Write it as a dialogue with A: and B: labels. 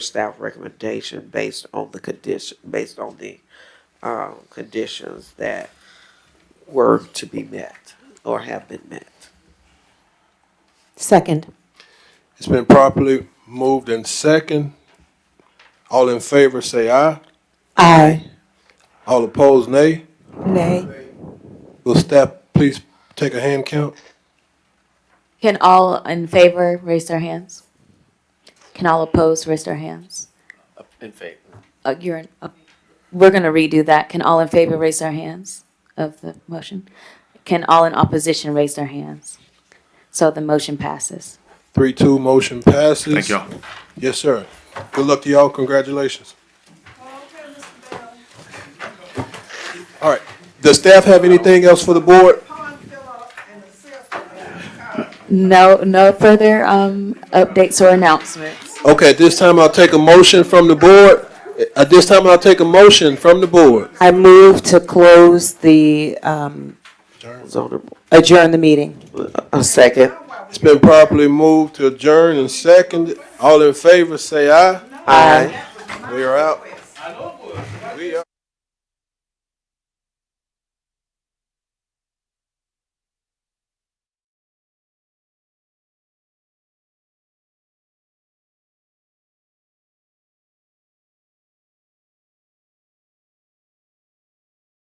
A: staff recommendation based on the condition, based on the, um, conditions that were to be met or have been met.
B: Second.
C: It's been properly moved and second. All in favor, say aye.
B: Aye.
C: All opposed, nay.
B: Nay.
C: Will staff please take a hand count?
D: Can all in favor raise their hands? Can all opposed raise their hands?
E: In favor.
D: Uh, you're, in- uh, we're gonna redo that. Can all in favor raise their hands of the motion? Can all in opposition raise their hands? So the motion passes.
C: Three, two, motion passes.
E: Thank y'all.
C: Yes, sir. Good luck to y'all. Congratulations. All right. Does staff have anything else for the board?
D: No, no further, um, updates or announcements.
C: Okay, at this time, I'll take a motion from the board. At this time, I'll take a motion from the board.
B: I move to close the, um,
A: So,
B: adjourn the meeting.
A: a second.
C: It's been properly moved to adjourn and seconded. All in favor, say aye.
A: Aye.
C: We are out. We are.